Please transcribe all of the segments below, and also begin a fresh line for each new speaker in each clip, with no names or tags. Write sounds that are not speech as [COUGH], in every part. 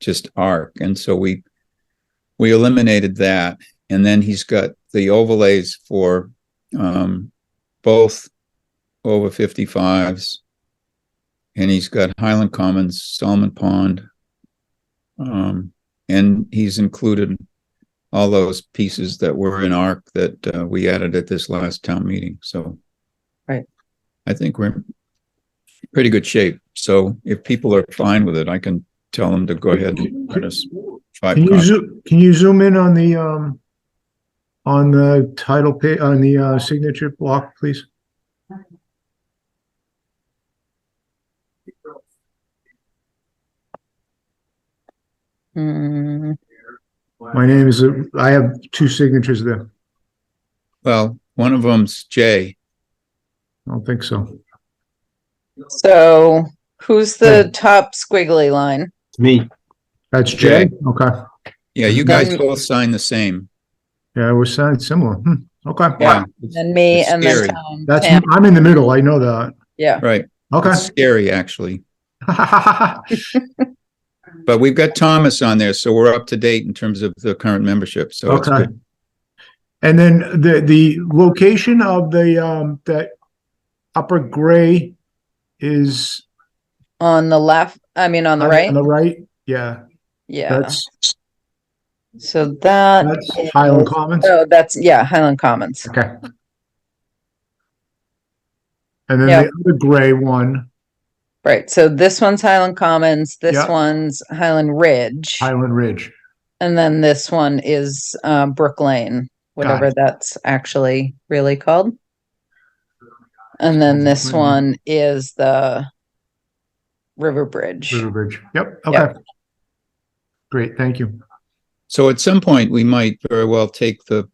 just arc. And so we, we eliminated that. And then he's got the overlays for, um, both over fifty-fives. And he's got Highland Commons, Solomon Pond. Um, and he's included all those pieces that were in ARC that, uh, we added at this last town meeting, so.
Right.
I think we're in pretty good shape. So if people are fine with it, I can tell them to go ahead and let us five.
Can you
copies.
zoom, can you zoom in on the, um, on the title pa, on the, uh, signature block, please?
Hmm,
My name is, uh, I have two signatures there.
Well, one of them's Jay.
I don't think so.
so who's the top squiggly line?
Me.
That's Jay?
Jay.
Okay.
Yeah, you guys
Then-
both sign the same.
Yeah, we're sounding similar. Hmm, okay.
Yeah, it's-
Then me
It's
and then
scary.
Tom.
That's,
Pam.
I'm in the middle. I know that.
Yeah,
right.
Okay.
It's scary, actually. But we've got Thomas on there, so we're up to date in terms of the current membership, so it's
Okay.
good.
[LAUGHS] And then the, the location of the, um, that upper gray is.
on the left, I mean, on the right,
On the right, yeah,
yeah,
that's,
so that.
that's Highland
is-
Commons.
Oh, that's, yeah, Highland Commons.
Okay. And then
Yeah.
the other gray one,
Right, so this one's Highland Commons, this
Yeah.
one's Highland Ridge,
Highland Ridge.
and then this one is uh, Brook Lane, whatever that's actually really called. And then this
Brook Lane.
one is the River Bridge.
River Bridge. Yep,
Yeah.
okay. Great, thank you.
So at some point, we might very well take the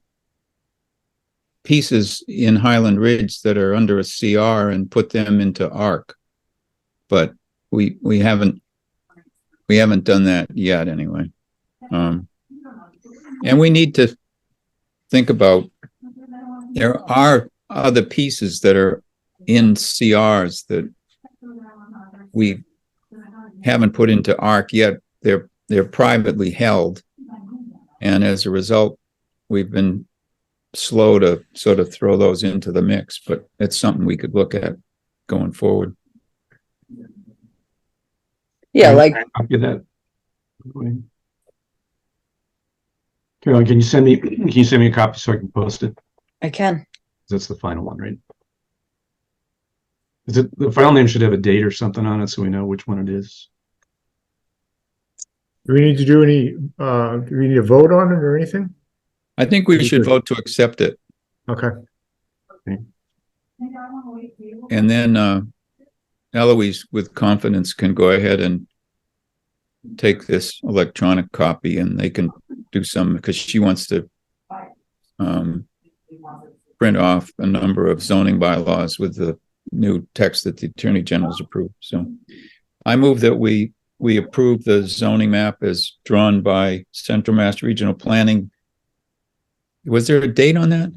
pieces in Highland Ridge that are under a CR and put them into ARC. But we, we haven't, we haven't done that yet anyway. Um, and we need to think about, there are other pieces that are in CRs that we haven't put into ARC yet. They're, they're privately held. And as a result, we've been slow to sort of throw those into the mix, but it's something we could look at going forward.
Yeah, like
Copy that. Carolyn, can you send me, [CLEARS THROAT] can you send me a copy so I can post it?
I can.
That's the final one, right? Is it, the file name should have a date or something on it so we know which one it is.
Do we need to do any, uh, do we need to vote on it or anything?
I think we should vote to accept it.
Okay,
And then, uh, Eloise with confidence can go ahead and take this electronic copy and they can do some, because she wants to um, print off a number of zoning bylaws with the new text that the Attorney General's approved. So I move that we, we approve the zoning map as drawn by Central Mass Regional Planning. Was there a date on that?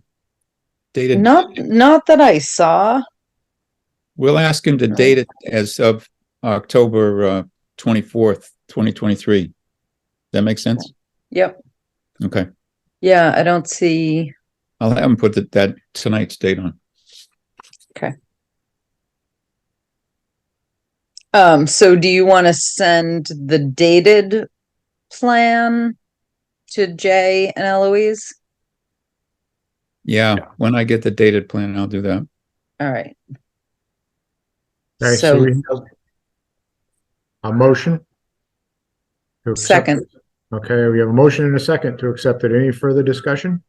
Dated?
Not not that I saw.
We'll ask him to
Right.
date it as of October uh, 24th, 2023. Does That make sense?
Yep.
Okay.
Yeah, I don't see.
I'll have him put that, that tonight's date on.
Um, so do you want to send the dated plan to Jay and Eloise?
Yeah, when I get the dated plan, I'll do that.
All right.
all right, so
So
we have a motion? to accept
Second.
it. Okay, we have a motion and a second to accept it. Any further discussion?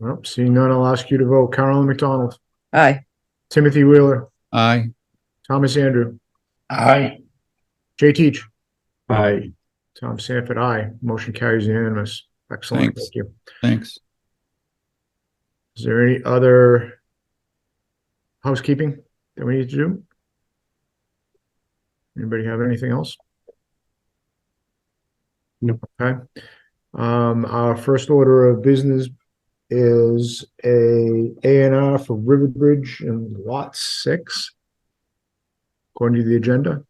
Well, seeing none, I'll ask you to vote. Carolyn McDonald,
aye.
Timothy Wheeler,
Aye.
Thomas Andrew,
Aye.
Jay Teach.
Aye.
Tom Sanford, aye. Motion carries unanimous. Excellent.
Thanks.
Thank you.
Thanks.
Is there any other housekeeping that we need to do? Anybody have anything else?
Nope.
Okay. Um, our first order of business is a A and R for Riverbridge and Lot Six. According to the agenda,